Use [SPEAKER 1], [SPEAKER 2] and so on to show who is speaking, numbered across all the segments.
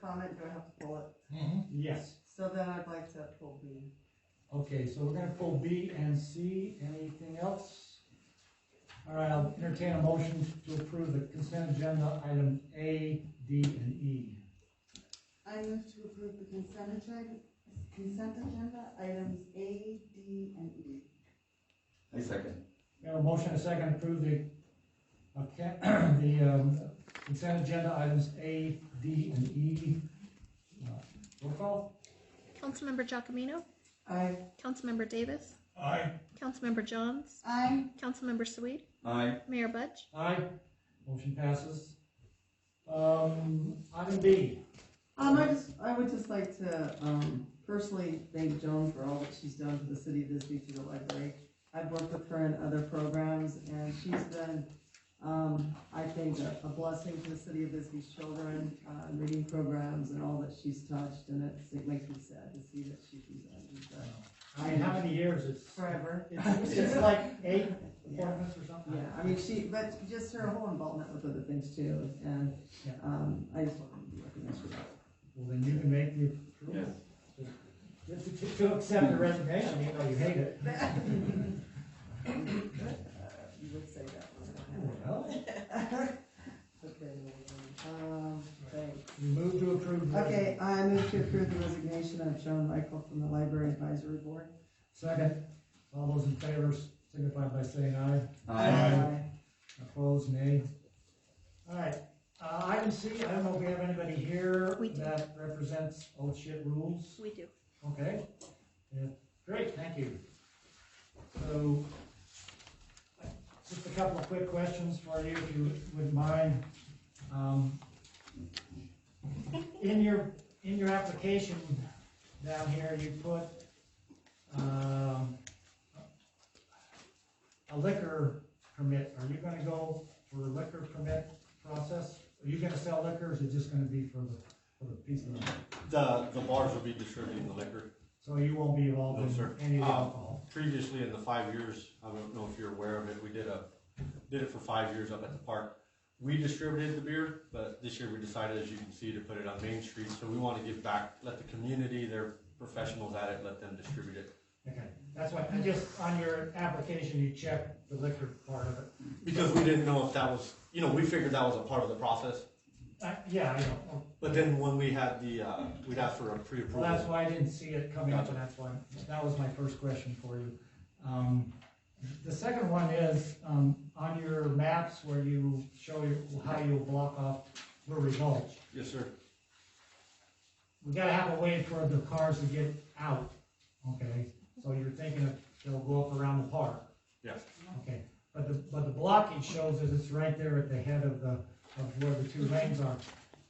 [SPEAKER 1] comment, do I have to pull it?
[SPEAKER 2] Mhm.
[SPEAKER 3] Yes,
[SPEAKER 1] So then I'd like to pull B.
[SPEAKER 2] Okay, so we're gonna pull B and C, anything else? All right, I'll entertain a motion to approve the consent agenda, item A, D, and E.
[SPEAKER 4] I move to approve the consent agenda, consent agenda items A, D, and E.
[SPEAKER 5] I second.
[SPEAKER 2] We have a motion and a second to approve the, okay, the um, consent agenda, items A, D, and E. Uh, Roll call?
[SPEAKER 6] Councilmember Giacomino,
[SPEAKER 1] I,
[SPEAKER 6] Councilmember Davis,
[SPEAKER 2] Aye.
[SPEAKER 6] Councilmember Johns,
[SPEAKER 4] I,
[SPEAKER 6] Councilmember Sweet,
[SPEAKER 5] Aye.
[SPEAKER 6] Mayor Budge,
[SPEAKER 2] Aye. Motion passes. Um, item B.
[SPEAKER 1] um, I just, I would just like to, um, personally thank Joan for all that she's done for the city of Bisbee through the library. I've worked with her in other programs and she's been, um, I think a a blessing to the city of Bisbee's children, uh, in reading programs and all that she's touched and it's, it makes me sad to see that she's resigned, but
[SPEAKER 2] I mean, how many years? It's,
[SPEAKER 1] forever.
[SPEAKER 2] it's just like eight appointments or something?
[SPEAKER 1] Yeah, I mean, she, but just her whole involvement with other things too, and,
[SPEAKER 2] Yeah.
[SPEAKER 1] um, I just want to be recognized for that.
[SPEAKER 2] Well, then you can make the
[SPEAKER 5] Yes.
[SPEAKER 2] approval. Just to, to accept the resignation, even though you hate it.
[SPEAKER 1] You would say that. wouldn't
[SPEAKER 2] Oh, Well,
[SPEAKER 1] it? Okay, um, thanks.
[SPEAKER 2] you move to approve. the-
[SPEAKER 1] Okay, I move to approve the resignation of Joan Michael from the Library Advisory Board.
[SPEAKER 2] Second. All those in favor signify by saying aye.
[SPEAKER 5] Aye.
[SPEAKER 2] Opposed, nay. All right, uh, item C, I don't know if we have anybody here
[SPEAKER 6] We do.
[SPEAKER 2] that represents old shit rules.
[SPEAKER 6] we do.
[SPEAKER 2] Okay, Yeah, great, thank you. So, just a couple of quick questions for you, if you would mind. Um, In your, in your application down here, you put, um, a liquor permit, are you gonna go for a liquor permit process? Are you gonna sell liquor, or is it just gonna be for the, for the piece of?
[SPEAKER 7] The, the bars will be distributing the liquor.
[SPEAKER 2] So you won't be involved
[SPEAKER 7] No,
[SPEAKER 2] in
[SPEAKER 7] sir.
[SPEAKER 2] any of the
[SPEAKER 7] Uh,
[SPEAKER 2] alcohol?
[SPEAKER 7] Previously, in the five years, I don't know if you're aware of it, we did a, did it for five years up at the park. We distributed the beer, but this year we decided, as you can see, to put it on Main Street, so we wanna give back, let the community, their professionals at it, let them distribute it.
[SPEAKER 2] Okay, that's why, I just, on your application, you checked the liquor part of it.
[SPEAKER 7] Because we didn't know if that was, you know, we figured that was a part of the process,
[SPEAKER 2] Uh, yeah, I know,
[SPEAKER 7] but then when we had the, uh, we'd ask for a
[SPEAKER 2] well, that's
[SPEAKER 7] pre-approval.
[SPEAKER 2] why I didn't see it coming up, and that's why, that was my first question for you. Um, the second one is, um, on your maps where you show your, how you block off Brewery Gulch,
[SPEAKER 7] Yes, sir.
[SPEAKER 2] we gotta have a way for the cars to get out, okay? So you're thinking of, they'll go up around the park.
[SPEAKER 7] Yes.
[SPEAKER 2] Okay, but the, but the blockage shows that it's right there at the head of the, of where the two lanes are.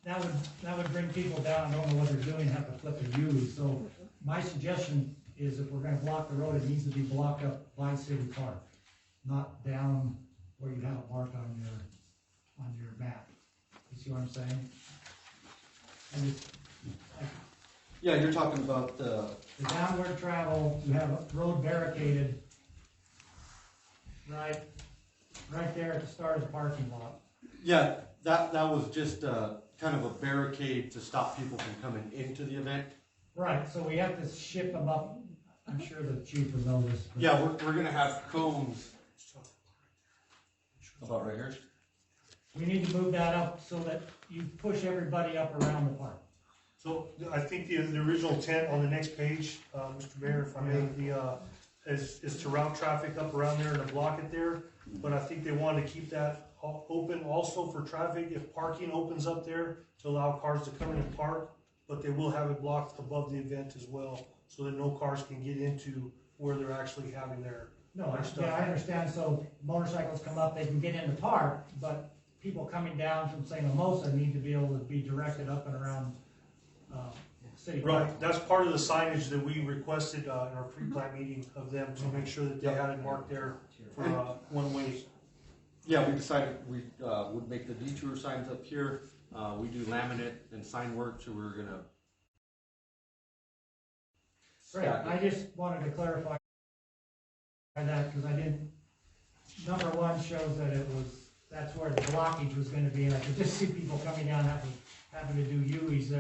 [SPEAKER 2] That would, that would bring people down, don't know what they're doing, have to flip a U, so my suggestion is if we're gonna block the road, it needs to be blocked up by City Park, not down where you have it marked on your, on your map. You see what I'm saying? And it's
[SPEAKER 7] Yeah, you're talking about
[SPEAKER 5] uh,
[SPEAKER 7] the,
[SPEAKER 2] the downward travel, you have a road barricaded right, right there at the start of the parking lot.
[SPEAKER 7] Yeah, that, that was just uh kind of a barricade to stop people from coming into the event.
[SPEAKER 2] Right, so we have to ship them up, I'm sure the chief will know this. but-
[SPEAKER 7] Yeah, we're, we're gonna have cones.
[SPEAKER 5] About right here?
[SPEAKER 2] We need to move that up so that you push everybody up around the park.
[SPEAKER 8] So I think the, the original intent on the next page, uh, Mr. Mayor, if I may, the, uh, is, is to route traffic up around there and to block it there. But I think they wanted to keep that o- open also for traffic if parking opens up there to allow cars to come in and park. But they will have it blocked above the event as well, so that no cars can get into where they're actually having their,
[SPEAKER 2] No, I, yeah, I understand, so motorcycles come up, they can get in the park, but people coming down from St. Mimosa need to be able to be directed up and around, uh, city. Park.
[SPEAKER 8] Right, that's part of the signage that we requested, uh, in our pre-plat meeting of them to make sure that they had it marked there for, uh, one-way
[SPEAKER 7] Yeah, we decided we uh, would make the detour signs up here. Uh, we do laminate and sign work, so we're gonna.
[SPEAKER 2] Right, I just wanted to clarify that, because I didn't, number one shows that it was, that's where the blockage was gonna be, and I could just see people coming down having, having to do U's there.